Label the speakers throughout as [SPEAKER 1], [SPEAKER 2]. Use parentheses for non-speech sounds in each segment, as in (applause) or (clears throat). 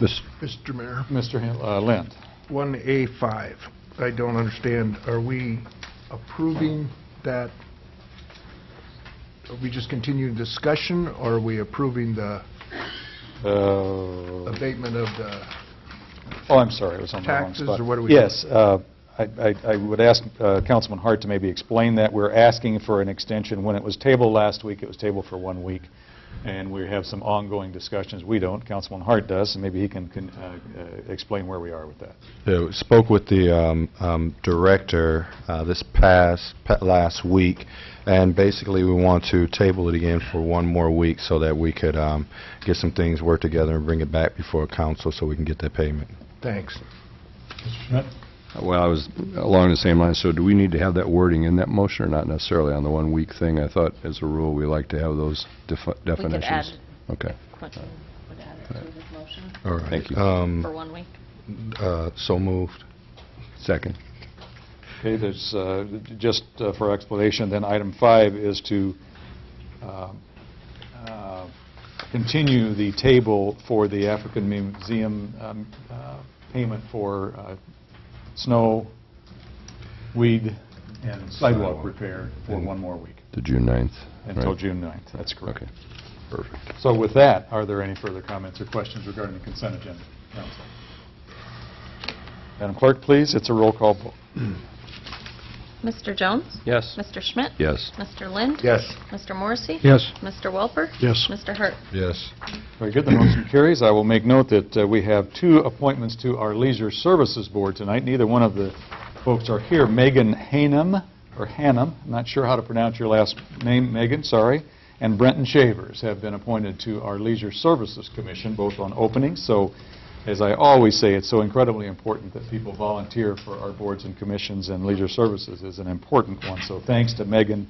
[SPEAKER 1] Mis-
[SPEAKER 2] Mr. Mayor,
[SPEAKER 1] Mr. Hen- uh, Lind?
[SPEAKER 2] 1A5, I don't understand, are we approving that, are we just continuing discussion, or are we approving the
[SPEAKER 1] Uh,
[SPEAKER 2] abatement of the,
[SPEAKER 1] Oh, I'm sorry, it was on the wrong
[SPEAKER 2] Taxes,
[SPEAKER 1] spot.
[SPEAKER 2] or what are we-
[SPEAKER 1] Yes, uh, I I- I would ask uh, Councilman Hart to maybe explain that. We're asking for an extension. When it was tabled last week, it was tabled for one week, and we have some ongoing discussions. We don't, Councilman Hart does, and maybe he can can, uh, uh, explain where we are with that.
[SPEAKER 3] Yeah, Spoke with the um, um, director uh, this past, pa- last week, and basically, we want to table it again for one more week so that we could um, get some things worked together and bring it back before council so we can get that payment.
[SPEAKER 2] thanks.
[SPEAKER 4] Well, I was along the same line, so do we need to have that wording in that motion or not necessarily on the one-week thing? I thought, as a rule, we like to have those defi-
[SPEAKER 5] could
[SPEAKER 4] definitions. Okay.
[SPEAKER 5] Quentin would add it to his motion
[SPEAKER 3] All right.
[SPEAKER 4] Thank you.
[SPEAKER 5] for
[SPEAKER 3] you.
[SPEAKER 5] one week.
[SPEAKER 3] So moved.
[SPEAKER 4] Second.
[SPEAKER 1] Okay, there's, uh, j- just uh, for explanation, then item five is to um, uh, continue the table for the African Museum um, uh, payment for uh, snow, weed, and sidewalk
[SPEAKER 3] Sidewalk.
[SPEAKER 1] repair for one more week,
[SPEAKER 4] To June 9th.
[SPEAKER 1] until
[SPEAKER 4] right?
[SPEAKER 1] June 9th. That's correct.
[SPEAKER 4] Okay. Perfect.
[SPEAKER 1] So with that, are there any further comments or questions regarding the consent agenda, council? Madam Clerk, please, it's a roll call vote.
[SPEAKER 5] Mr. Jones?
[SPEAKER 4] Yes.
[SPEAKER 5] Mr. Schmidt?
[SPEAKER 4] Yes.
[SPEAKER 5] Mr. Lind?
[SPEAKER 2] Yes.
[SPEAKER 5] Mr. Morrissey?
[SPEAKER 4] Yes.
[SPEAKER 5] Mr. Welper?
[SPEAKER 2] Yes.
[SPEAKER 5] Mr. Hart?
[SPEAKER 3] Yes.
[SPEAKER 1] Very good, the motion carries. I will make note that uh, we have two appointments to our Leisure Services Board tonight. Neither one of the folks are here. Megan Hanum, or Hanum, I'm not sure how to pronounce your last name, Megan, sorry, and Brenton Shavers have been appointed to our Leisure Services Commission, both on openings. So, as I always say, it's so incredibly important that people volunteer for our boards and commissions, and Leisure Services is an important one. So thanks to Megan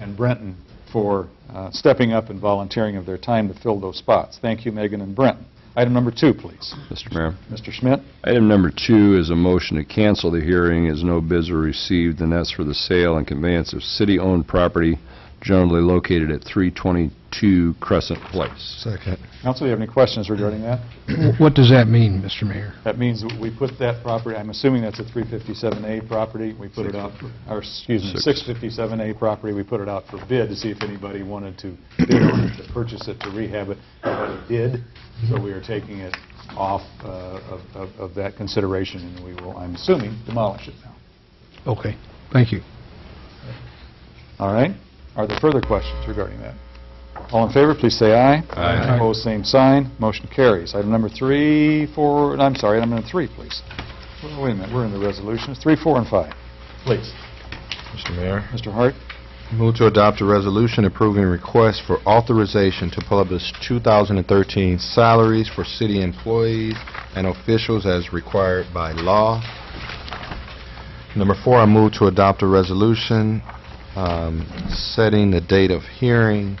[SPEAKER 1] and Brenton for uh, stepping up and volunteering of their time to fill those spots. Thank you, Megan and Brenton. Item number two, please.
[SPEAKER 4] Mr. Mayor.
[SPEAKER 1] Mr. Schmidt?
[SPEAKER 4] Item number two is a motion to cancel the hearing as no bids were received, and that's for the sale and conveyance of city-owned property generally located at 322 Crescent Place.
[SPEAKER 3] Second.
[SPEAKER 1] Council, do you have any questions regarding that?
[SPEAKER 6] (clears throat) What does that mean, Mr. Mayor?
[SPEAKER 1] That means that we put that property, I'm assuming that's a 357A property, we put it out, or excuse me, 657A property, we put it out for bid to see if anybody wanted to bid on it, to purchase it, to rehab it, nobody did, so we are taking it off uh, of- of of that consideration, and we will, I'm assuming, demolish it now.
[SPEAKER 6] Okay, thank you.
[SPEAKER 1] All right. Are there further questions regarding that? All in favor, please say aye.
[SPEAKER 6] Aye.
[SPEAKER 1] Opposed, same sign. Motion carries. Item number three, four, I'm sorry, item number three, please. Well, Wait a minute, we're in the resolutions. Three, four, and five. Please.
[SPEAKER 3] Mr. Mayor.
[SPEAKER 1] Mr. Hart?
[SPEAKER 3] Move to adopt a resolution approving request for authorization to publish 2013 salaries for city employees and officials as required by law. Number four, I move to adopt a resolution um, setting the date of hearing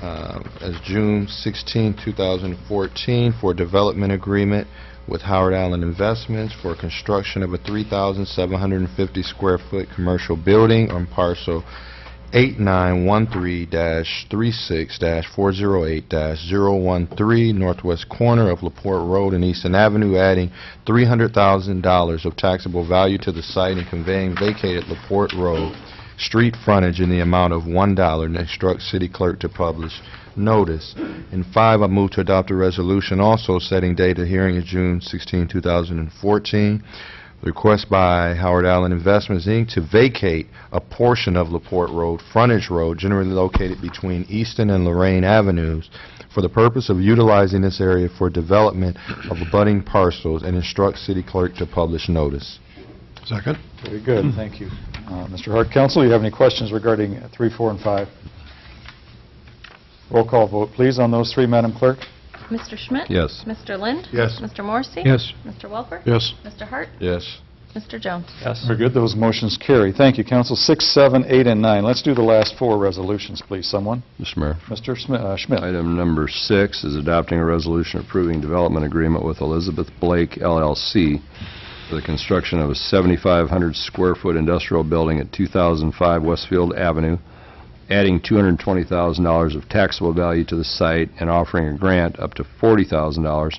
[SPEAKER 3] uh, as June 16, 2014, for development agreement with Howard Allen Investments for construction of a 3,750-square-foot commercial building on parcel 8913-36-408-013, northwest corner of LaPorte Road and Eastern Avenue, adding $300,000 of taxable value to the site and conveying vacated LaPorte Road street frontage in the amount of $1 and instruct city clerk to publish notice. And five, I move to adopt a resolution also setting date of hearing is June 16, 2014. Request by Howard Allen Investments, Inc. to vacate a portion of LaPorte Road, frontage road generally located between Easton and Lorraine Avenues, for the purpose of utilizing this area for development of abutting parcels and instruct city clerk to publish notice.
[SPEAKER 6] Second?
[SPEAKER 1] Very good, thank you. Uh, Mr. Hart, counsel, you have any questions regarding uh, three, four, and five? Roll call vote, please, on those three, Madam Clerk.
[SPEAKER 5] Mr. Schmidt?
[SPEAKER 4] Yes.
[SPEAKER 5] Mr. Lind?
[SPEAKER 2] Yes.
[SPEAKER 5] Mr. Morrissey?
[SPEAKER 6] Yes.
[SPEAKER 5] Mr. Welper?
[SPEAKER 6] Yes.
[SPEAKER 5] Mr. Hart?
[SPEAKER 3] Yes.
[SPEAKER 5] Mr. Jones?
[SPEAKER 1] Very good, those motions carry. Thank you, counsel. Six, seven, eight, and nine. Let's do the last four resolutions, please, someone.
[SPEAKER 4] Mr. Mayor.
[SPEAKER 1] Mr. Schmi- uh, Schmidt?
[SPEAKER 4] Item number six is adopting a resolution approving development agreement with Elizabeth Blake LLC for the construction of a 7,500-square-foot industrial building at 2005 Westfield Avenue, adding $220,000 of taxable value to the site and offering a grant up to $40,000